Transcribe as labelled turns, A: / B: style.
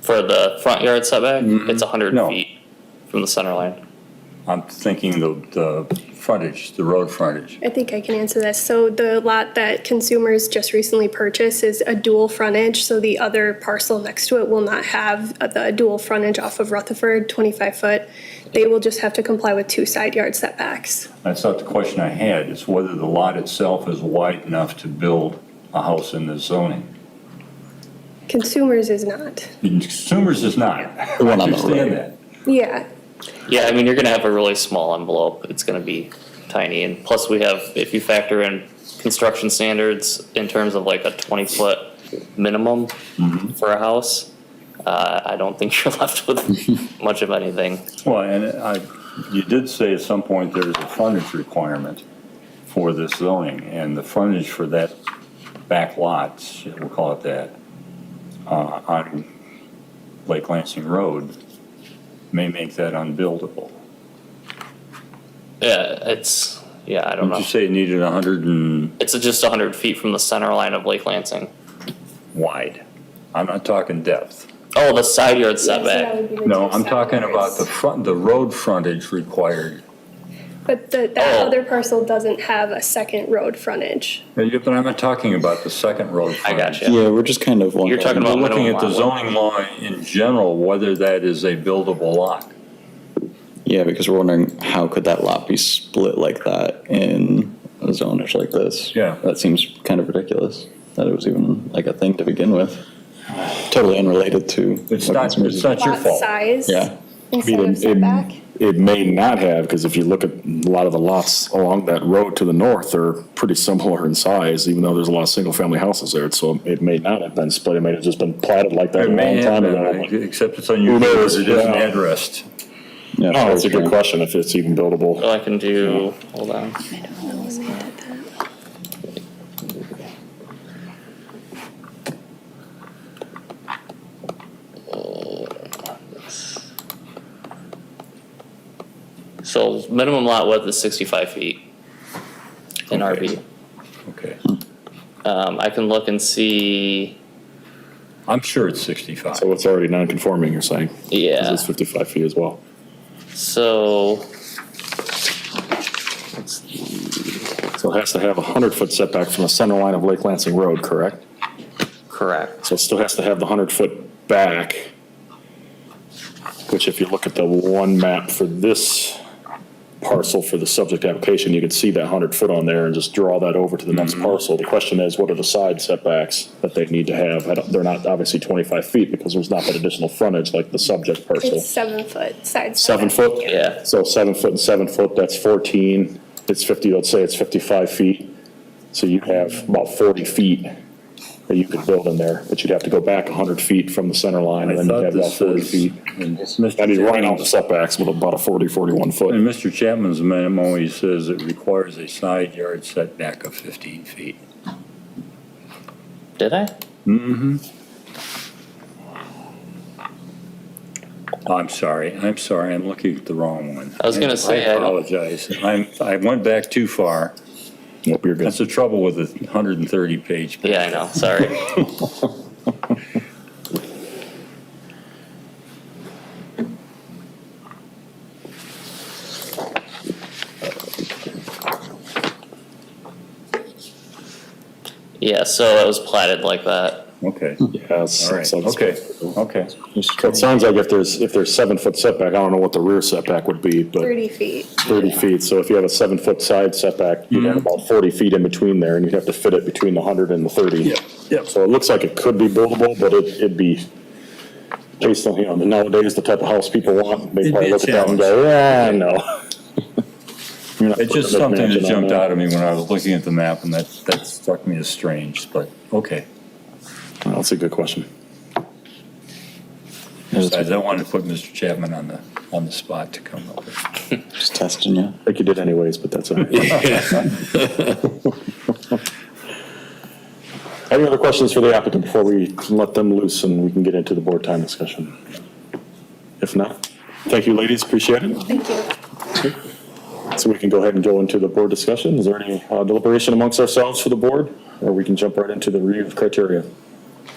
A: for the front yard setback, it's hundred
B: No.
A: feet from the center line.
B: I'm thinking the, the frontage, the road frontage.
C: I think I can answer this. So the lot that consumers just recently purchased is a dual frontage, so the other parcel next to it will not have the dual frontage off of Rutherford, 25-foot. They will just have to comply with two side yard setbacks.
B: That's not the question I had, it's whether the lot itself is wide enough to build a house in this zoning.
C: Consumers is not.
B: Consumers is not. I
D: one on the
B: Understand
D: road.
B: that.
C: Yeah,
A: Yeah, I mean, you're gonna have a really small envelope, it's gonna be tiny, and plus we have, if you factor in construction standards in terms of like a twenty-foot minimum for a house, uh, I don't think you're left with much of anything.
B: Well, and I, you did say at some point there's a frontage requirement for this zoning, and the frontage for that back lot, we'll call it that, uh, on Lake Lansing Road may make that unbuildable.
A: Yeah, it's, yeah, I don't
B: Did
A: know.
B: you say it needed hundred and
A: It's just hundred feet from the center line of Lake Lansing.
B: wide? I'm not talking depth.
A: Oh, the side yard
C: so that
A: setback.
C: would be the
B: No,
C: two
B: I'm
C: side
B: talking about
C: yards.
B: the front, the road frontage required.
C: But the, that
A: Oh.
C: other parcel doesn't have a second road frontage.
B: But I'm not talking about the second road
A: I
B: frontage.
A: got you.
D: Yeah, we're just kind of wondering.
A: talking about-
B: We're looking
A: minimum
B: at the
A: lot width.
B: zoning law in general, whether that is a buildable lot.
D: Yeah, because we're wondering how could that lot be split like that in a zonage like this?
B: Yeah.
D: That seems kind of ridiculous, that it was even like a thing to begin with. Totally unrelated to.
B: It's not, it's not your
C: Lot
B: fault.
C: size
D: Yeah,
C: instead of setback.
E: It may not have, because if you look at a lot of the lots along that road to the north, they're pretty similar in size, even though there's a lot of single-family houses there, so it may not have been split, it may have just been platted like that
B: It
E: a
B: may
E: long
B: have
E: time
B: been,
E: ago.
B: except it's unusual,
E: knows,
B: that it isn't
E: yeah.
B: addressed.
D: yeah.
E: No, it's Oh, a
D: true.
E: good question, if it's even buildable.
A: Well, I can do, hold on. So minimum lot width is sixty-five feet in
B: Okay.
A: RB.
B: Okay.
A: Um, I can look and see,
B: I'm sure it's 65.
E: So it's already non-conforming, you're saying? 'cause
A: yeah,
E: It's 55 feet as well.
A: so.
E: So it has to have a 100-foot setback from the center line of Lake Lansing Road, correct?
A: Correct.
E: So it still has to have the hundred foot back, which if you look at the one map for this parcel for the subject application, you could see that hundred foot on there and just draw that over to the next parcel. The question is, what are the side setbacks that they need to have? I don't- They're not obviously twenty-five feet because there's not that additional frontage like the subject parcel.
C: It's seven foot side.
E: Seven
C: setback.
E: foot?
A: Yeah.
E: So seven foot and seven foot, that's 14. It's 50, let's say it's 55 feet. So you have about 40 feet that you could build in there, but you'd have to go back 100 feet from the center line
B: I
E: and then you'd
B: thought
E: have about
B: this
E: 40
B: was,
E: feet.
B: and
E: That'd be
B: Mr.
E: running out the
B: Chapman's-
E: setbacks with about a 40, 41
B: in
E: foot.
B: Mr. Chapman's memo, he says it requires a side yard setback of 15 feet.
A: Did I?
B: I'm sorry, I'm sorry, I'm looking at the wrong one.
A: I was gonna say,
B: I
A: I don't-
B: apologize. I'm, I went back too far.
E: Nope, you're
B: That's
E: good.
B: the trouble with a 130-page.
A: Yeah, I know, sorry. Yeah, so it was platted like that.
B: Okay,
E: Hmm. Yes.
B: all right,
E: so it's-
B: okay, okay.
E: So it sounds like if there's, if there's seven foot setback, I don't know what the rear setback would be, but.
C: Thirty feet.
E: 30 feet, so if you have a seven-foot side setback, you'd
B: Hmm.
E: have about 40 feet in between there, and you'd have to fit it between the 100 and the 30.
B: Yeah, yeah.
E: So it looks like it could be buildable, but it- it'd be, based on, you know, nowadays, the type of house people want, they
B: It'd be
E: probably
B: a
E: look at that and go, yeah, no. You're
B: It's just
E: not putting a
B: something that
E: mansion on
B: jumped
E: that.
B: out at me when I was looking at the map, and that, that struck me as strange, but, okay.
E: Well, That's a good question.
B: Besides, I wanted to put Mr. Chapman on the, on the spot to come up with.
D: Just testing you.
E: I think you did anyways, but that's all right. Any other questions for the applicant before we let them loose and we can get into the board time discussion? If not, thank you, ladies, appreciate it.
C: Thank you.
E: So we can go ahead and go into the board discussion. Is there any uh, deliberation amongst ourselves for the board? Or we can jump right into the review of criteria?